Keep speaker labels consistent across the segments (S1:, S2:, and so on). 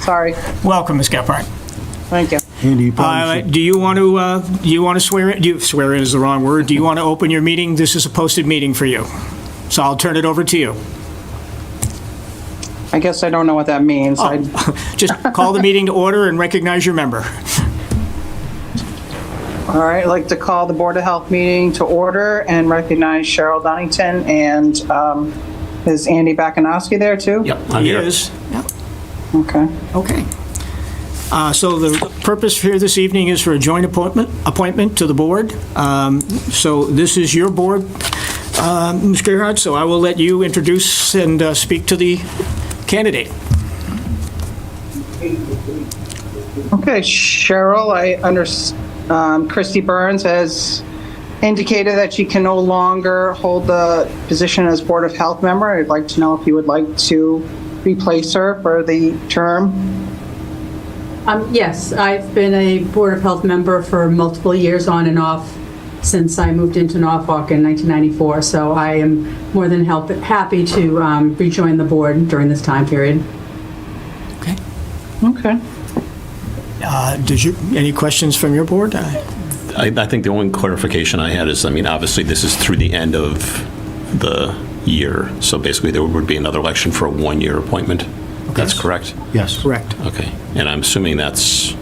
S1: Sorry.
S2: Welcome, Ms. Gephardt.
S1: Thank you.
S3: Andy, you
S2: Uh,
S3: probably should.
S2: Do you want to, uh, do you want to swear, in- do you, swear in is the wrong word, do you want to open your meeting? This is a posted meeting for you, so I'll turn it over to you.
S1: I guess I don't know what that means. I-
S2: Just call the meeting to order and recognize your member.
S1: All right, I'd like to call the Board of Health meeting to order and recognize Cheryl Donnington and um, is Andy Bakunowski there too?
S2: I'm here. Yep.
S1: Okay.
S2: Okay. Uh, So the purpose here this evening is for a joint appointment, appointment to the board. Um, So this is your board, uh, Ms. Gerhart, so I will let you introduce and uh, speak to the candidate.
S1: Okay, Cheryl, I under, um, Christy Burns has indicated that she can no longer hold the position as Board of Health member. I'd like to know if you would like to replace her for the term.
S4: Um, Yes, I've been a Board of Health member for multiple years on and off since I moved into Norfolk in 1994, so I am more than help- happy to um, rejoin the board during this time period.
S2: Okay.
S1: Okay.
S2: Uh, Did you, any questions from your board? I-
S5: I, I think the only clarification I had is, I mean, obviously, this is through the end of the year, so basically, there would be another election for a one-year appointment. That's correct?
S3: Yes.
S2: Correct.
S5: Okay, and I'm assuming that's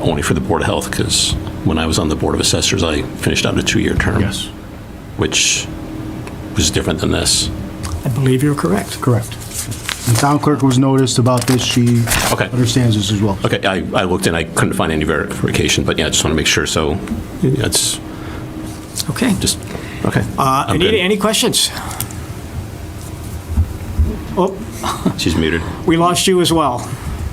S5: only for the Board of Health, because when I was on the Board of Assessors, I finished out a two-year term.
S3: Yes.
S5: Which was different than this.
S2: I believe you're correct.
S3: Correct. The town clerk was noticed about this. She
S5: Okay.
S3: understands this as well.
S5: Okay, I, I looked and I couldn't find any verification, but yeah, I just want to make sure, so it's
S2: Okay.
S5: just, okay.
S2: Uh,
S5: I'm
S2: Anita,
S5: good.
S2: any questions? Oh,
S5: She's muted.
S2: we lost you as well.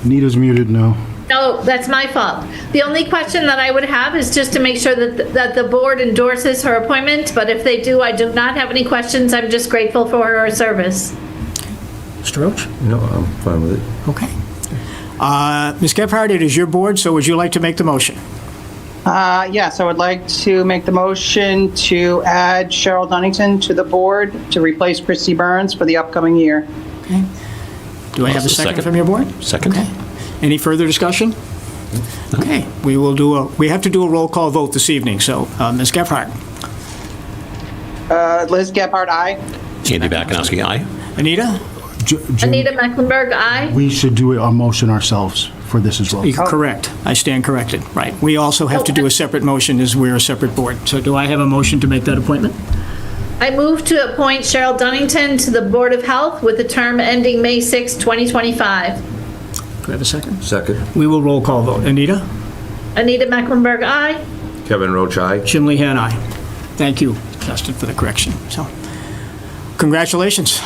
S3: Anita's muted now.
S6: No, that's my fault. The only question that I would have is just to make sure that, that the board endorses her appointment, but if they do, I do not have any questions. I'm just grateful for her service.
S2: Mr. Roach?
S7: No, I'm fine with it.
S2: Okay. Uh, Ms. Gephardt, it is your board, so would you like to make the motion?
S1: Uh, Yes, I would like to make the motion to add Cheryl Dunnington to the board to replace Christy Burns for the upcoming year.
S2: Do I have a
S5: Second.
S2: second from your board?
S5: Second.
S2: Okay. Any further discussion? Okay, we will do a, we have to do a roll call vote this evening, so uh, Ms. Gephardt,
S1: Uh, Liz Gephardt, aye.
S5: Andy Bakunowski, aye?
S2: Anita,
S3: J- Jim,
S6: Anita Mecklenburg, aye.
S3: We should do a motion ourselves for this as well.
S2: you're correct. I stand corrected, right. We also have to do a separate motion as we're a separate board. So do I have a motion to make that appointment?
S6: I move to appoint Cheryl Dunnington to the Board of Health with a term ending May 6, 2025.
S2: Do I have a second?
S7: Second.
S2: We will roll call vote. Anita?
S6: Anita Mecklenburg, aye.
S7: Kevin Roach, aye.
S2: Jim Lehan, aye. Thank you, Justin, for the correction. So, congratulations.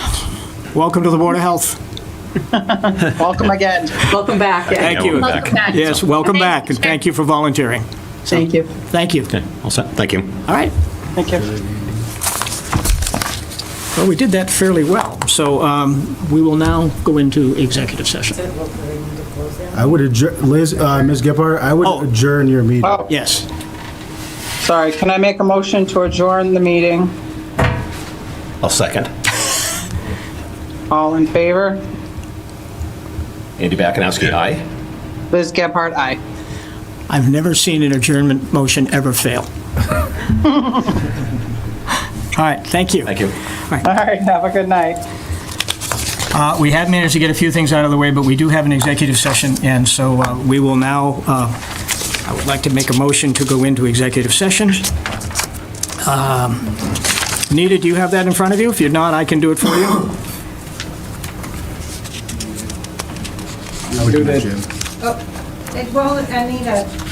S2: Welcome to the Board of Health.
S1: Welcome again.
S4: Welcome back.
S2: Thank you.
S5: Welcome back.
S2: Yes, welcome back, and thank you for volunteering.
S4: Thank you.
S2: Thank you.
S5: Okay, all set, thank you.
S2: All right.
S1: Thank you.
S2: Well, we did that fairly well, so um, we will now go into executive session.
S3: I would adjourn, Liz, uh, Ms. Gephardt, I
S2: Oh.
S3: would adjourn your meeting.
S2: Yes.
S1: Sorry, can I make a motion to adjourn the meeting?
S5: I'll second.
S1: All in favor?
S5: Andy Bakunowski, aye?
S1: Liz Gephardt, aye.
S2: I've never seen an adjournment motion ever fail. All right, thank you.
S5: Thank you.
S1: All right, have a good night.
S2: Uh, We have managed to get a few things out of the way, but we do have an executive session, and so uh, we will now, uh, I would like to make a motion to go into executive session. Um, Nita, do you have that in front of you? If you're not, I can do it for you.
S3: I would do that, Jim.
S8: It won't, Anita,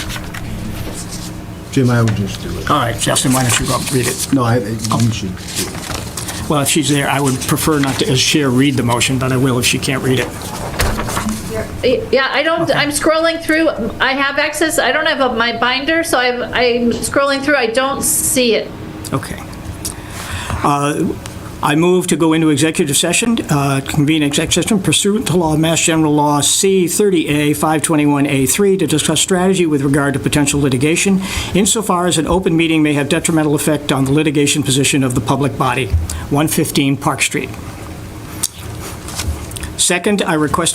S3: Jim, I would just do it.
S2: All right, Justin, why don't you go up and read it?
S3: No, I, you should. do it.
S2: Well, if she's there, I would prefer not to, as Cher read the motion, but I will if she can't read it.
S6: Yeah, I don't, I'm scrolling through. I have access, I don't have a- my binder, so I'm, I'm scrolling through. I don't see it.
S2: Okay. Uh, I move to go into executive session, uh, convene executive session pursuant to law, Mass General Law C 30A 521A3, to discuss strategy with regard to potential litigation, insofar as an open meeting may have detrimental effect on the litigation position of the public body, 115 Park Street. Second, I request a